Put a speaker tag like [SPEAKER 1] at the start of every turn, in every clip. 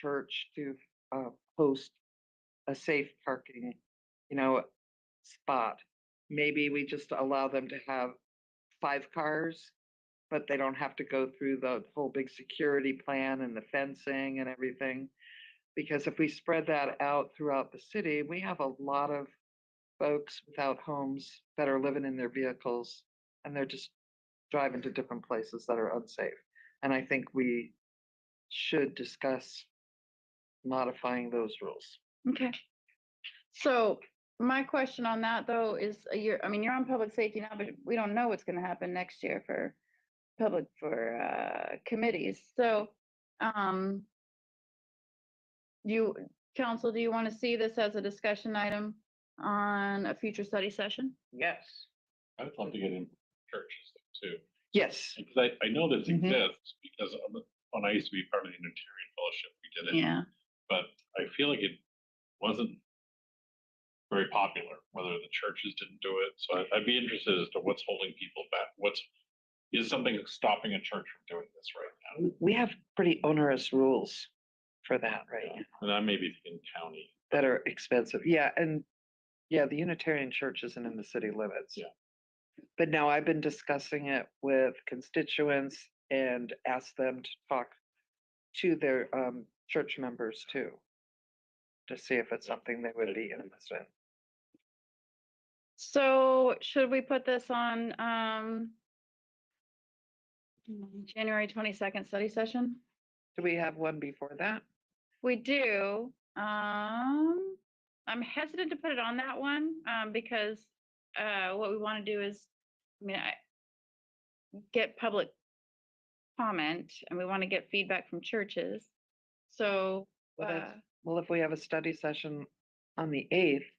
[SPEAKER 1] church to uh, post a safe parking, you know, spot. Maybe we just allow them to have five cars, but they don't have to go through the whole big security plan and the fencing and everything. Because if we spread that out throughout the city, we have a lot of folks without homes that are living in their vehicles and they're just driving to different places that are unsafe. And I think we should discuss modifying those rules.
[SPEAKER 2] Okay. So my question on that though is, uh, you're, I mean, you're on public safety now, but we don't know what's gonna happen next year for public, for, uh, committees. So, um, you, council, do you want to see this as a discussion item on a future study session?
[SPEAKER 1] Yes.
[SPEAKER 3] I would love to get in churches too,
[SPEAKER 1] Yes.
[SPEAKER 3] because I, I know this
[SPEAKER 1] Mhm.
[SPEAKER 3] exists because of the- when I used to be part of the Unitarian Fellowship, we did it.
[SPEAKER 2] Yeah,
[SPEAKER 3] But I feel like it wasn't very popular, whether the churches didn't do it. So I- I'd be interested as to what's holding people back. What's, is something stopping a church from doing this right now?
[SPEAKER 1] w- we have pretty onerous rules for that, right?
[SPEAKER 3] And I may be thinking county.
[SPEAKER 1] That are expensive. Yeah, and yeah, the Unitarian Church isn't in the city limits.
[SPEAKER 3] Yeah.
[SPEAKER 1] But now I've been discussing it with constituents and asked them to talk to their um church members too. To see if it's something they would be interested in.
[SPEAKER 2] so should we put this on, um, mm, January twenty-second study session?
[SPEAKER 1] Do we have one before that?
[SPEAKER 2] We do. Um, I'm hesitant to put it on that one, um, because, uh, what we want to do is, I mean, I get public comment and we want to get feedback from churches. So,
[SPEAKER 1] Well,
[SPEAKER 2] uh,
[SPEAKER 1] that's- Well, if we have a study session on the eighth,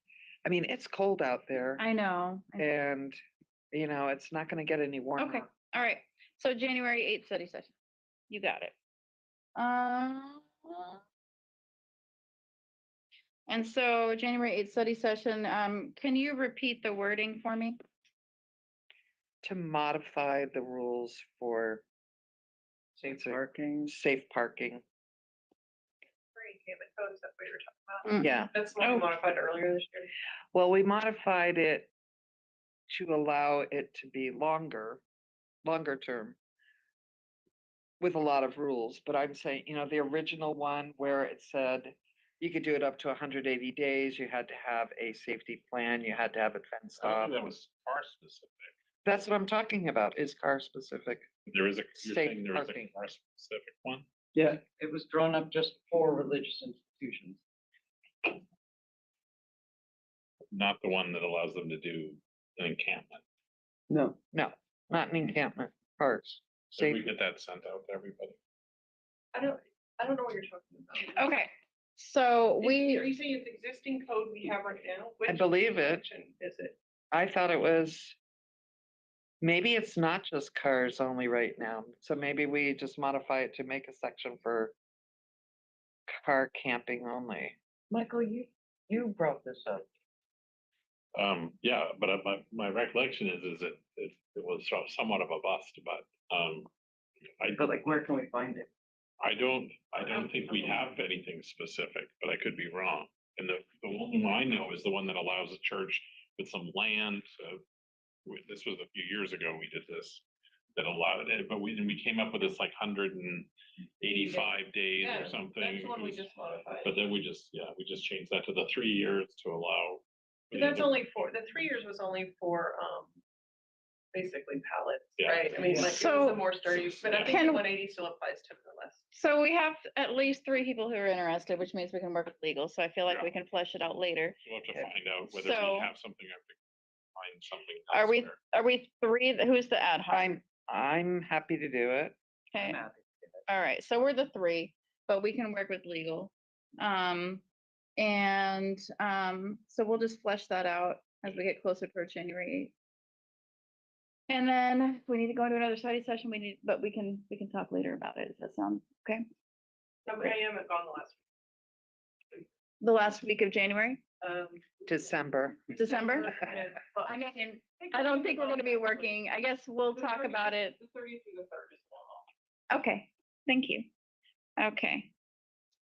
[SPEAKER 1] I mean, it's cold out there
[SPEAKER 2] I know. I-
[SPEAKER 1] and, you know, it's not gonna get any warmer.
[SPEAKER 2] Okay, all right. So January eighth study session. You got it. Um. And so January eighth study session, um, can you repeat the wording for me?
[SPEAKER 1] to modify the rules for. Safe parking. Safe parking,
[SPEAKER 2] Mm.
[SPEAKER 1] yeah. Oh.
[SPEAKER 4] That's what we modified earlier this year.
[SPEAKER 1] Well, we modified it to allow it to be longer, longer term. With a lot of rules, but I'm saying, you know, the original one where it said you could do it up to hundred eighty days, you had to have a safety plan, you had to have it fenced
[SPEAKER 3] I
[SPEAKER 1] off.
[SPEAKER 3] don't think that was car specific.
[SPEAKER 1] That's what I'm talking about, is car specific.
[SPEAKER 3] There is a, you're
[SPEAKER 1] Safe
[SPEAKER 3] saying there is a
[SPEAKER 1] parking.
[SPEAKER 3] car specific one?
[SPEAKER 5] Yeah, it was drawn up just for religious institutions.
[SPEAKER 3] Not the one that allows them to do an encampment.
[SPEAKER 5] No.
[SPEAKER 1] No, not an encampment, cars.
[SPEAKER 3] So we
[SPEAKER 1] Safe-
[SPEAKER 3] get that sent out to everybody.
[SPEAKER 4] I don't, I don't know what you're talking about.
[SPEAKER 2] Okay, so
[SPEAKER 4] Is- Are
[SPEAKER 2] we,
[SPEAKER 4] you saying it's existing code we have right now?
[SPEAKER 1] I
[SPEAKER 4] Which
[SPEAKER 1] believe it.
[SPEAKER 4] section Is it?
[SPEAKER 1] I thought it was, maybe it's not just cars only right now. So maybe we just modify it to make a section for car camping only.
[SPEAKER 5] Michael, you, you brought this up.
[SPEAKER 3] Um, yeah, but I- my, my recollection is, is it, it, it was sort of somewhat of a bust, but, um, I,
[SPEAKER 5] But like, where can we find it?
[SPEAKER 3] I don't, I don't think we have anything specific, but I could be wrong. And the, the one I know is the one that allows a church with some land, so we- this was a few years ago, we did this. That allowed it, but we, and we came up with this like hundred and eighty-five days
[SPEAKER 4] Yeah,
[SPEAKER 3] or something.
[SPEAKER 4] That's the one
[SPEAKER 3] It
[SPEAKER 4] we
[SPEAKER 3] was-
[SPEAKER 4] just modified.
[SPEAKER 3] But then we just, yeah, we just changed that to the three years to allow.
[SPEAKER 4] But that's
[SPEAKER 3] the-
[SPEAKER 4] only for, the three years was only for, um, basically pallets,
[SPEAKER 3] Yeah.
[SPEAKER 4] right? I mean, like, it was
[SPEAKER 2] So-
[SPEAKER 4] the more sturdy, but I think
[SPEAKER 2] Can-
[SPEAKER 4] the one eighty still applies to the less.
[SPEAKER 2] so we have at least three people who are interested, which means we can work with legal, so I feel like
[SPEAKER 3] Yeah.
[SPEAKER 2] we can flesh it out later.
[SPEAKER 3] We'll have to
[SPEAKER 2] Okay.
[SPEAKER 3] find out whether
[SPEAKER 2] So-
[SPEAKER 3] we have something, I have to find something.
[SPEAKER 2] Are we-
[SPEAKER 3] elsewhere.
[SPEAKER 2] Are we three, th- who's the ad hoc?
[SPEAKER 1] I'm, I'm happy to do it.
[SPEAKER 2] Okay,
[SPEAKER 5] Matt?
[SPEAKER 2] all right, so we're the three, but we can work with legal. Um, and, um, so we'll just flesh that out as we get closer to January. 8th. And then we need to go into another study session, we need, but we can, we can talk later about it, does that sound okay?
[SPEAKER 4] No, but I haven't gone the last,
[SPEAKER 2] The last week of January,
[SPEAKER 4] um.
[SPEAKER 1] December.
[SPEAKER 2] December?
[SPEAKER 4] yeah, well,
[SPEAKER 2] I mean,
[SPEAKER 4] we're
[SPEAKER 2] I don't think
[SPEAKER 4] thinking
[SPEAKER 2] we're
[SPEAKER 4] about
[SPEAKER 2] gonna
[SPEAKER 4] it
[SPEAKER 2] be
[SPEAKER 4] next week.
[SPEAKER 2] working. I guess we'll
[SPEAKER 4] The
[SPEAKER 2] talk
[SPEAKER 4] 30th
[SPEAKER 2] about it.
[SPEAKER 4] The thirtieth through the third is long.
[SPEAKER 2] Okay, thank you. Okay,